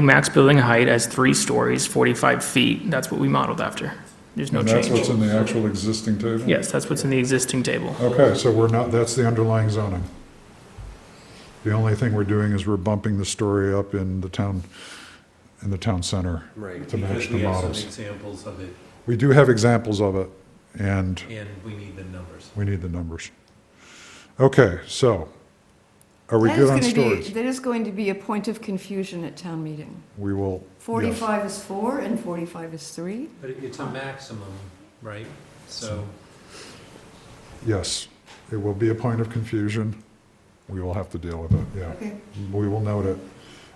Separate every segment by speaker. Speaker 1: max building height as three stories, 45 feet. That's what we modeled after. There's no
Speaker 2: And that's what's
Speaker 1: change.
Speaker 2: in the actual existing table?
Speaker 1: Yes, that's what's in the existing table.
Speaker 2: Okay, so we're not, that's the underlying zoning. The only thing we're doing is we're bumping the story up in the town, in the town center.
Speaker 3: Right,
Speaker 2: To match
Speaker 3: because
Speaker 2: the
Speaker 3: we have some
Speaker 2: models.
Speaker 3: examples of it,
Speaker 2: We do have examples of it, and
Speaker 3: and we need the numbers.
Speaker 2: we need the numbers. Okay, so, are we
Speaker 4: That
Speaker 2: good
Speaker 4: is
Speaker 2: on
Speaker 4: gonna be-
Speaker 2: stories?
Speaker 4: That is going to be a point of confusion at town meeting.
Speaker 2: We will. yes.
Speaker 4: 45 is four and 45 is three.
Speaker 3: But it- it's a maximum, right? So,
Speaker 2: Yes, it will be a point of confusion. We will have to deal with it, yeah.
Speaker 4: Okay.
Speaker 2: We will note it.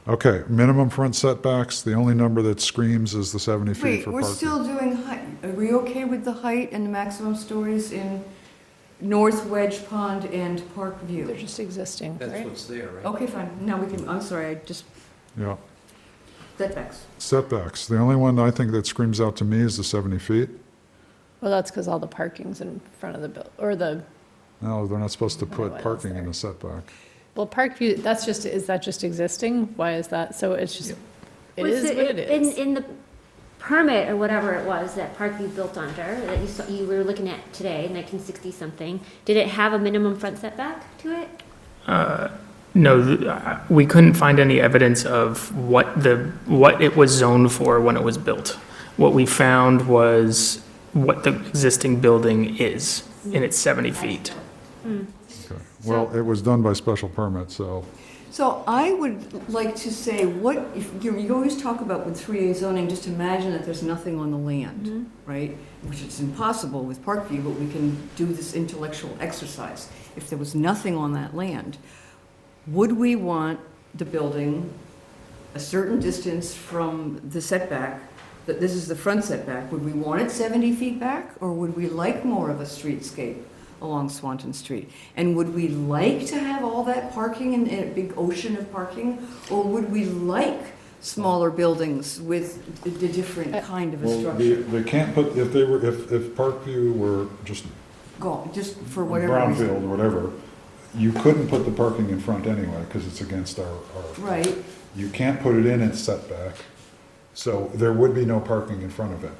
Speaker 2: Okay, minimum front setbacks, the only number that screams is the 70 feet
Speaker 4: Wait,
Speaker 2: for
Speaker 4: we're
Speaker 2: parking.
Speaker 4: still doing height. Are we okay with the height and the maximum stories in North Wedge Pond and Park
Speaker 5: They're
Speaker 4: View?
Speaker 5: just existing,
Speaker 3: that's
Speaker 5: right? Oh.
Speaker 3: what's there, right?
Speaker 4: Okay, fine. Now we can, I'm sorry, I just,
Speaker 2: Yeah,
Speaker 4: setbacks.
Speaker 2: setbacks, the only one I think that screams out to me is the 70 feet.
Speaker 5: Well, that's because all the parking's in front of the, buil- or the,
Speaker 2: No, they're not supposed to
Speaker 5: don't know
Speaker 2: put
Speaker 5: what else
Speaker 2: parking in
Speaker 5: there.
Speaker 2: the setback.
Speaker 5: well, Parkview, that's just, is that just existing? Why is that? So it's just, it
Speaker 6: Was
Speaker 5: is what it
Speaker 6: In,
Speaker 5: is.
Speaker 6: in the permit or whatever it was that Parkview built under, that you saw, you were looking at today, nineteen sixty something, did it have a minimum front setback to it?
Speaker 1: No, th- uh, we couldn't find any evidence of what the, what it was zoned for when it was built. What we found was what the existing building is, and it's 70 feet.
Speaker 2: Okay. Well, it was done by special permit, so,
Speaker 4: So I would like to say, what, if, you you always talk about with 3A zoning, just imagine that there's nothing on the land, right? Which is impossible with Parkview, but we can do this intellectual exercise. If there was nothing on that land, would we want the building a certain distance from the setback, that this is the front setback, would we want it 70 feet back? Or would we like more of a streetscape along Swanton Street? And would we like to have all that parking and and a big ocean of parking? Or would we like smaller buildings with a a different kind of a
Speaker 2: well, they,
Speaker 4: structure?
Speaker 2: they can't put, if they were, if, if Parkview were just
Speaker 4: Go, just for whatever reason.
Speaker 2: brownfield, whatever, you couldn't put the parking in front anyway, because it's against our, our.
Speaker 4: Right,
Speaker 2: You can't put it in its setback, so there would be no parking in front of it.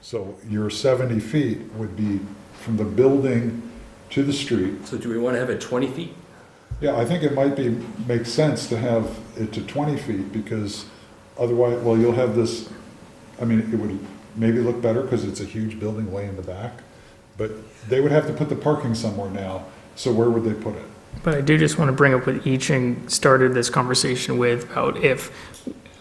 Speaker 2: So your 70 feet would be from the building to the street.
Speaker 7: So do we want to have it 20 feet?
Speaker 2: Yeah, I think it might be, make sense to have it to 20 feet, because otherwise, well, you'll have this, I mean, it would maybe look better, because it's a huge building way in the back, but they would have to put the parking somewhere now, so where would they put it?
Speaker 1: But I do just want to bring up what Eeching started this conversation with about if,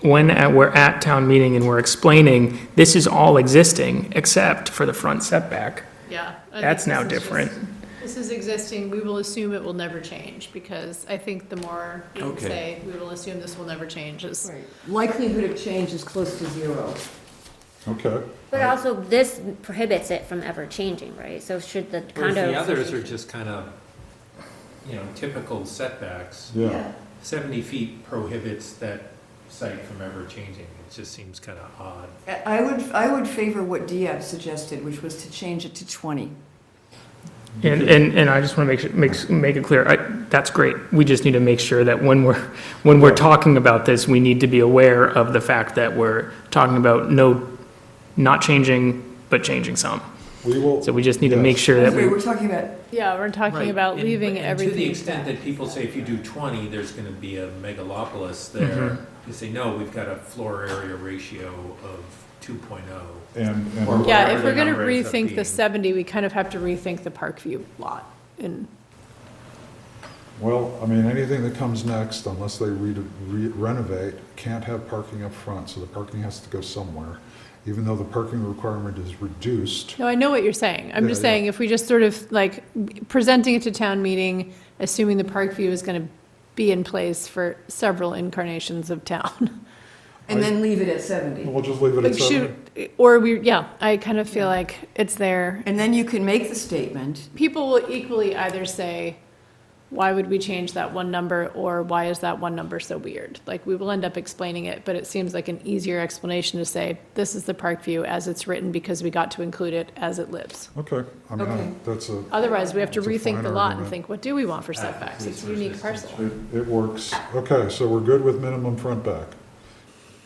Speaker 1: when at- we're at town meeting and we're explaining, this is all existing except for the front setback.
Speaker 5: Yeah. I think
Speaker 1: That's now
Speaker 5: this is just-
Speaker 1: different.
Speaker 5: This is existing, we will assume it will never change, because I think the more we can
Speaker 7: Okay.
Speaker 5: say, we will assume this will never change is.
Speaker 4: right. Likelihood of change is close to zero.
Speaker 2: Okay.
Speaker 6: But
Speaker 3: Uh,
Speaker 6: also, this prohibits it from ever changing, right? So should the condo.
Speaker 3: Whereas the others are
Speaker 6: association-
Speaker 3: just kind of, you know, typical setbacks.
Speaker 2: Yeah,
Speaker 3: Seventy feet prohibits that site from ever changing. It just seems kind of odd.
Speaker 4: I would, I would favor what Diab suggested, which was to change it to 20.
Speaker 1: And, and, and I just want to make, sure- make, make it clear, I, that's great. We just need to make sure that when we're, when we're talking about this, we need to be aware of the fact that we're talking about no, not changing, but changing some.
Speaker 2: we will.
Speaker 1: So we just need to make
Speaker 2: Yes.
Speaker 1: sure that
Speaker 4: Sorry,
Speaker 1: we,
Speaker 4: we're talking about
Speaker 5: Yeah, we're talking
Speaker 3: Right,
Speaker 5: about
Speaker 3: and-
Speaker 5: leaving
Speaker 3: and To the
Speaker 5: everything
Speaker 3: extent that people say if you do twenty, there's gonna be a megalopolis there, they say, no, we've got a floor area ratio of two oh."
Speaker 2: And, and.
Speaker 3: Or-
Speaker 5: Yeah,
Speaker 3: whatever
Speaker 5: if
Speaker 3: the
Speaker 5: we're gonna
Speaker 3: number ends up
Speaker 5: rethink the
Speaker 3: being.
Speaker 5: seventy, we kind of have to rethink the Parkview lot, and
Speaker 2: Well, I mean, anything that comes next, unless they re- re- renovate, can't have parking up front, so the parking has to go somewhere, even though the parking requirement is reduced.
Speaker 5: No, I know what you're saying. I'm
Speaker 2: Yeah,
Speaker 5: just
Speaker 2: yeah.
Speaker 5: saying, if we just sort of, like, presenting it to town meeting, assuming the park view is gonna be in place for several incarnations of town.
Speaker 4: And then leave it at 70.
Speaker 2: We'll just leave it at
Speaker 5: Like,
Speaker 2: seven.
Speaker 5: shoot, or we, yeah, I kind of feel like it's there.
Speaker 4: And then you can make the statement,
Speaker 5: People will equally either say, why would we change that one number, or why is that one number so weird? Like, we will end up explaining it, but it seems like an easier explanation to say, this is the park view as it's written, because we got to include it as it lives.
Speaker 2: Okay, I mean,
Speaker 4: Okay.
Speaker 2: I- that's a,
Speaker 5: Otherwise, we have to
Speaker 2: It's a
Speaker 5: rethink
Speaker 2: fine
Speaker 5: the lot and
Speaker 2: argument. Ah,
Speaker 5: think, what do we want for setbacks? It's a unique parcel.
Speaker 2: it, it works. Okay, so we're good with minimum front back.